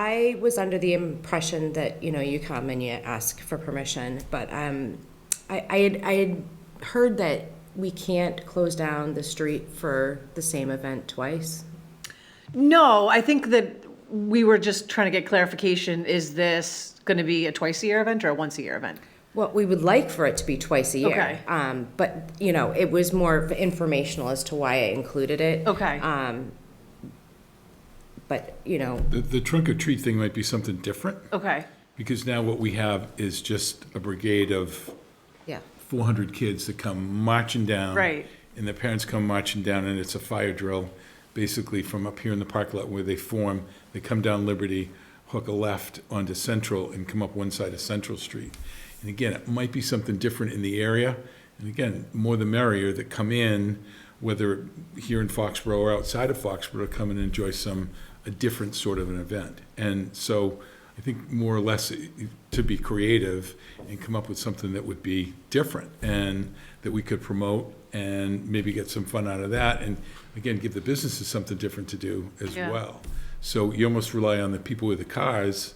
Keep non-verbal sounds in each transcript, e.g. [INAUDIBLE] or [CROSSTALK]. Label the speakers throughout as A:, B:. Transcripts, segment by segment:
A: I was under the impression that, you know, you come and you ask for permission, but um, I, I had, I had heard that we can't close down the street for the same event twice.
B: No, I think that we were just trying to get clarification. Is this going to be a twice a year event or a once a year event?
A: Well, we would like for it to be twice a year.
B: Okay.
A: Um, but, you know, it was more informational as to why I included it.
B: Okay.
A: Um, but, you know,
C: The, the trunk or treat thing might be something different,
B: Okay.
C: because now what we have is just a brigade of
A: yeah.
C: four hundred kids that come marching down.
B: Right.
C: And the parents come marching down, and it's a fire drill, basically from up here in the park lot where they form, they come down Liberty, hook a left onto Central, and come up one side of Central Street. And again, it might be something different in the area, and again, more the merrier that come in, whether here in Foxborough or outside of Foxborough, come and enjoy some, a different sort of an event. And so, I think more or less eh, to be creative and come up with something that would be different and that we could promote and maybe get some fun out of that. And again, give the businesses something different to do as
B: Yeah.
C: well. So you almost rely on the people with the cars,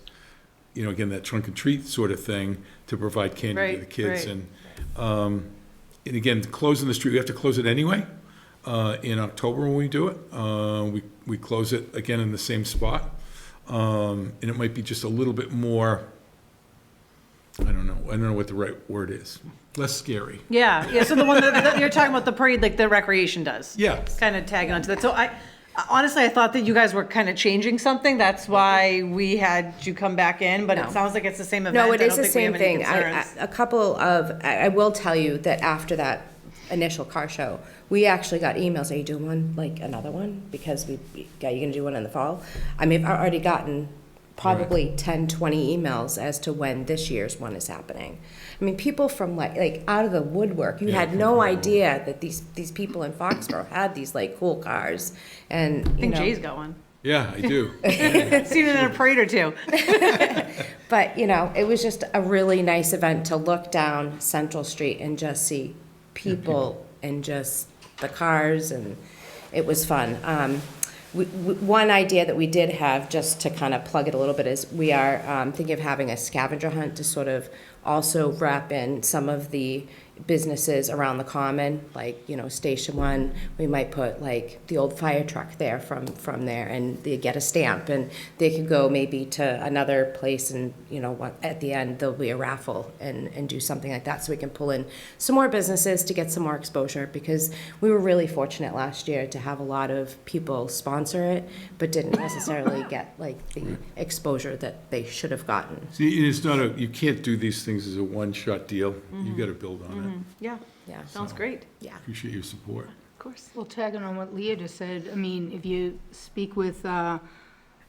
C: you know, again, that trunk and treat sort of thing to provide candy
B: Right,
C: to the kids.
B: right.
C: And, um, and again, closing the street, we have to close it anyway, uh, in October when we do it. Uh, we, we close it again in the same spot. Um, and it might be just a little bit more, I don't know, I don't know what the right word is, less scary.
B: Yeah. Yeah. So the one that, that you're talking about, the parade, like the recreation does.
C: Yeah.
B: Kind of tagging onto that. So I, honestly, I thought that you guys were kind of changing something. That's why we had you come back in, but
A: No.
B: it sounds like it's the same event.
A: No,
B: I
A: it is
B: don't
A: the
B: think we
A: same
B: have any
A: thing. I- I-
B: concerns.
A: A couple of, I I will tell you that after that initial car show, we actually got emails, are you doing one, like another one? Because we, yeah, you're gonna do one in the fall? I mean, I've already gotten probably 10, 20 emails as to when this year's one is happening. I mean, people from like, like out of the woodwork, you had no idea that these, these people in Foxborough had these like cool cars and,
B: I
A: you
B: think
A: know.
B: Jay's
A: [LAUGHS]
B: got one.
C: Yeah,
B: [LAUGHS]
C: I do.
B: Seen it in a parade or two.
A: But, you know, it was just a really nice event to look down Central Street and just see people and just the cars and it was fun. Um, we, we, one idea that we did have, just to kind of plug it a little bit, is we are um, thinking of having a scavenger hunt to sort of also wrap in some of the businesses around the common, like, you know, Station One, we might put like the old fire truck there from, from there and they get a stamp and they could go maybe to another place and, you know, what, at the end, there'll be a raffle and, and do something like that so we can pull in some more businesses to get some more exposure because we were really fortunate last year to have a lot of people sponsor it, but didn't necessarily get like the exposure that they should have gotten.
C: See, it's not a, you can't do these things as a one-shot deal.
B: Mm-hmm.
C: You gotta build on
B: Yeah.
A: Yeah.
B: Sounds great.
A: Yeah.
C: it. Appreciate your support.
B: Of course.
D: Well, tagging on what Leah just said, I mean, if you speak with uh,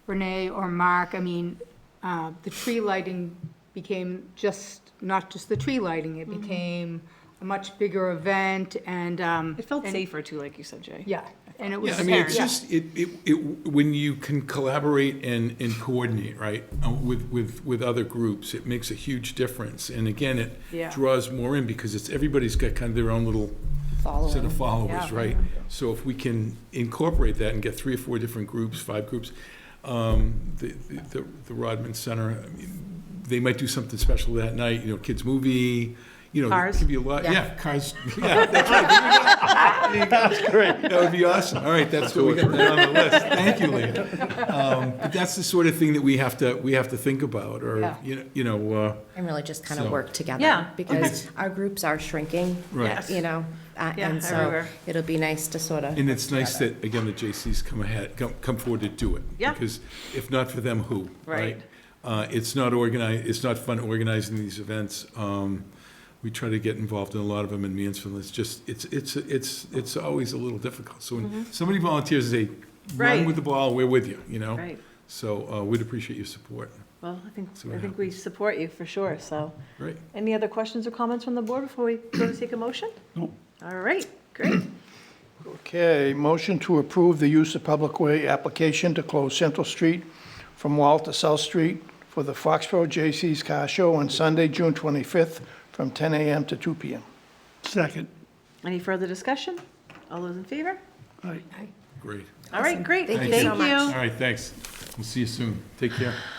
D: Renee or Mark, I mean, uh, the tree lighting became just, not just the tree lighting,
B: Mm-hmm.
D: it became a much bigger event and, um,
B: It felt safer too, like you said, Jay.
D: yeah, and it was.
C: Yeah, I mean, it's
D: yeah.
C: just, it, it, it, when you can collaborate and, and coordinate, right, uh, with, with, with other groups, it makes a huge difference. And again, it
B: Yeah.
C: draws more in because it's, everybody's got kind of their own little set of followers,
B: Yeah.
C: right? So if we can incorporate that and get three or four different groups, five groups, um, the, the, the Rodman Center, I mean, they might do something special that night, you know, kids' movie, you know. there
B: Cars?
C: could be a lot,
A: Yeah.
C: yeah, cars, [LAUGHS] yeah, that's right. [LAUGHS] That's great. That would be awesome. All right, that's what we got that on the list. [LAUGHS] Thank you, Leah. Um, But that's the sort of thing that we have to, we have to think about, or,
B: Yeah.
C: you know, you know, uh,
A: And really just kind of
C: So-
A: work together.
B: Yeah,
A: Because our groups are shrinking.
C: Right.
B: Yes.
A: You know, uh,
B: Yeah,
A: and so
B: everywhere.
A: it'll be nice to sort of,
C: And it's nice that, again, the JCs come ahead, come, come forward to do it.
B: Yeah.
C: Because if not for them, who?
B: Right.
C: Uh, it's not organized, it's not fun organizing these events. Um, we try to get involved in a lot of them in Mansfield. It's just, it's, it's, it's, it's always a little difficult. So when somebody volunteers, they run
B: Mm-hmm. Right.
C: with the ball, we're with you, you know?
B: Right.
C: So, uh, we'd appreciate your support.
B: Well, I think,
C: See what
B: I think we support you for sure, so.
C: Great.
B: Any other questions or comments from the board before we go to take a motion?
E: No.
B: All right, great.
E: Okay, motion to approve the use of public way application to close Central Street from Wall to South Street for the Foxborough J.C.'s Car Show on Sunday, June 25th, from 10 a.m. to 2 p.m.
F: Second.
B: Any further discussion? All those in favor?
F: Aye.
C: Great.
B: All right, great.
A: Thank you so much.
B: Oh.
C: All right, thanks. We'll see you soon. Take care.